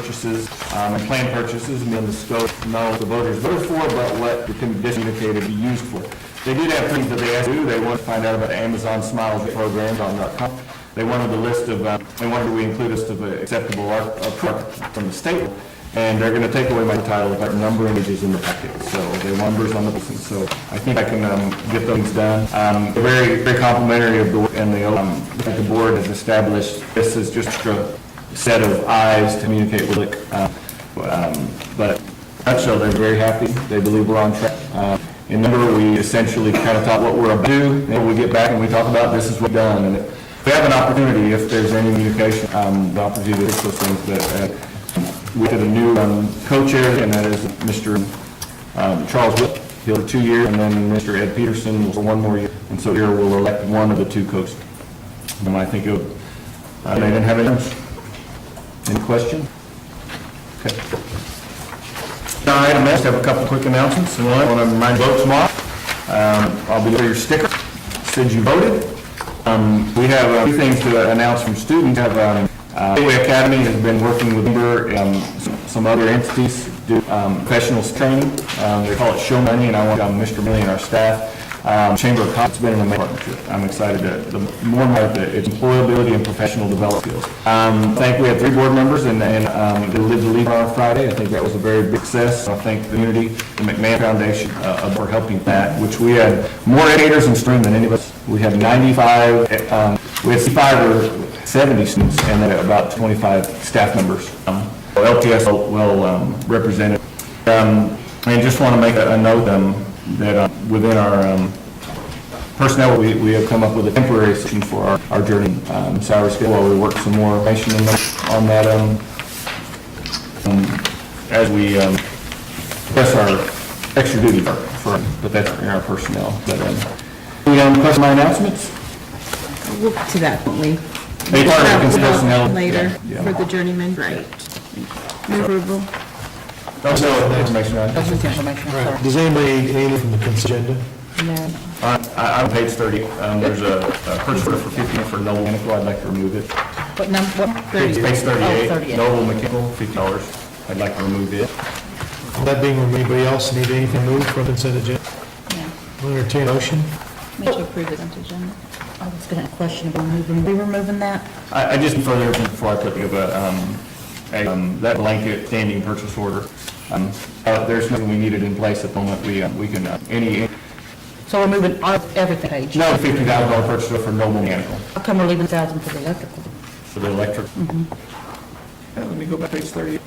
purchases, um, and planned purchases, and then the scope, not what the voters voted for, but what the condition indicated to be used for. They did have things that they asked to do, they wanted to find out about Amazon Smiles programs on dot com. They wanted the list of, uh, they wanted we include a list of uh, acceptable art, uh, products from the state, and they're gonna take away my title, but number images in the packet, so they want numbers on the, so I think I can, um, get things done. Um, very, very complimentary of the, work and the, um, that the board has established, this is just a set of eyes to communicate with, like, uh, um, but nutshell, they're very happy, they believe we're on track. Uh, In number, we essentially kind of thought what we're about to do, and we get back and we talk about this is what we've done, and we have an opportunity, if there's any communication, um, the opportunity to fix those things, but uh, we did a new um, co-chair, and that is Mr. um, Charles Whip, he'll do two years, and then Mr. Ed Peterson will one more year, and so here we'll elect one of the two coaches. And I think of, uh, they didn't have any, any question? Okay. All right, I must have a couple quick announcements. One, I want to remind you to vote tomorrow. Um, I'll be looking for your sticker, said you voted. Um, We have a few things to announce from students. We Have um, uh, Gateway Academy has been working with Denver, um, s- some other entities, do um, professional training. Um, They call it Show Money, and I want um, Mr. Millie and our staff. Um, Chamber of Commerce has been an amazing partnership. I'm excited that, the more and more that it's employability and professional development. Um, Thank, we had three board members, and and, um, they lived the lead on Friday. I think that was a very big success. I thank the community, the McMahon Foundation, uh, for helping that, which we had more educators in stream than any of us. We had 95, um, we had 65 or 70 students, and then about 25 staff members. Um, LPS well- well um, represented. Um, And just want to make a a note um, that uh, within our um, personnel, we, we have come up with a temporary solution for our, our journey, um, salary scale, while we work some more information on that- on that, um, um, as we, um, press our extra duty for, for- but that's in our personnel, but, um, we, um, question my announcements? We'll get to that, won't we? They are That will personnel, Later, yeah, yeah. for the journeyman, right. Move Approval. Don't know information on it. Does anybody need anything from the consent agenda? All right, Uh, I, I'm page thirty, um, there's a, a purchase order for fifty for Noble Mechanical, I'd like to remove it. What number, what, Page Oh, thirty-eight, 38. Noble Mechanical, fifty dollars, I'd like to remove it. That being, removed, anybody else need anything moved from the consent agenda? Will entertain a motion? Make sure approve the consent agenda. I was going to question about moving, we were moving that? I, I just further before I put together, um, a, um, that blanket standing purchase order. Um, uh, there's nothing we needed in place at the moment. We, uh, we can, uh, any, So we're moving our- everything page. no fifty thousand dollar purchase order for Noble Mechanical, How come we're leaving a thousand for the electrical? for the electric. Yeah, Let me go back to page thirty.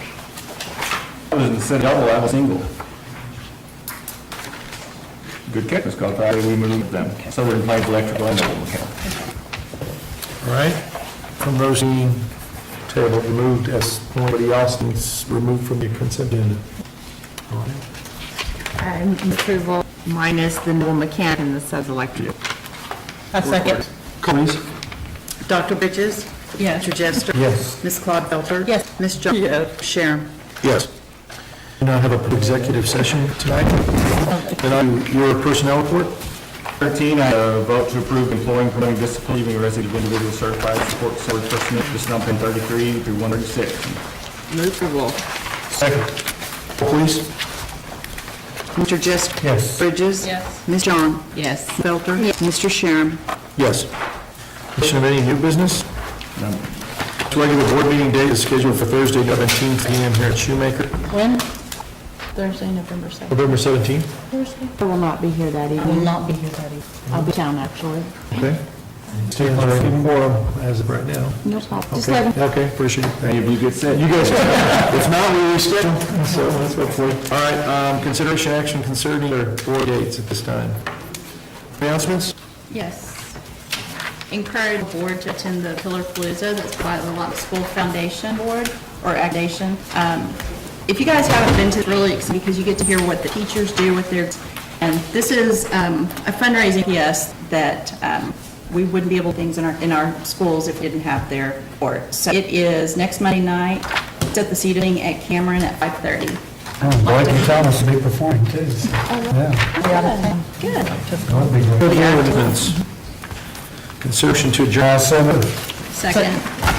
I was instead of double, I was single. Good catch, Ms. Coulter. We moved them. So we're in place electrical and Noble Mechanical. All right, from Rosie, table removed, as anybody else needs removed from the consent agenda? All right. Um, Approval minus the Noel mechanic and the says electric. A second. Please. Dr. Bridges? Yes. Mr. Jester? Yes. Ms. Claude Felter? Yes. Ms. Jones? Yes. Sharon? Yes. Do not have an executive session tonight? Then I, your personnel report? 13, I uh, vote to approve employing, promoting, disciplining, leaving resident of individual certified support service personnel, just number 33 through 136. Move approval. Second. Please. Mr. Jester? Yes. Bridges? Yes. Ms. Jones? Yes. Felter? Mr. Sharon? Yes. Question of any new business? None. Next regular board meeting date is scheduled for Thursday, 17th, p.m. here at Shoemaker. When? Thursday, November 7th. November 17th? Thursday? I will not be here that I will evening. not be here that evening. I'll be down, actually. Okay. Stands ready as of right now. No problem. Just let Okay, him. Okay. appreciate it. Any of you get sick? You guys, if not, we reschedule, so that's hopefully. All right, um, consideration action concerning our board dates at this time. Announcements? Yes. Encourage the board to attend the Pillar Palooza that's by the Lux School Foundation Board or Foundation. Um, If you guys haven't been to, it's really exciting because you get to hear what the teachers do with their, and this is um, a fundraising PS that um, we wouldn't be able to things in our, in our schools if we didn't have their support. So it is next Monday night, it's at the seating at Cameron at 5:30. Blake and Thomas will be performing too. so, Yeah, Good. that'll be great. Announcements. Consideration to adjourn. Seven. Second.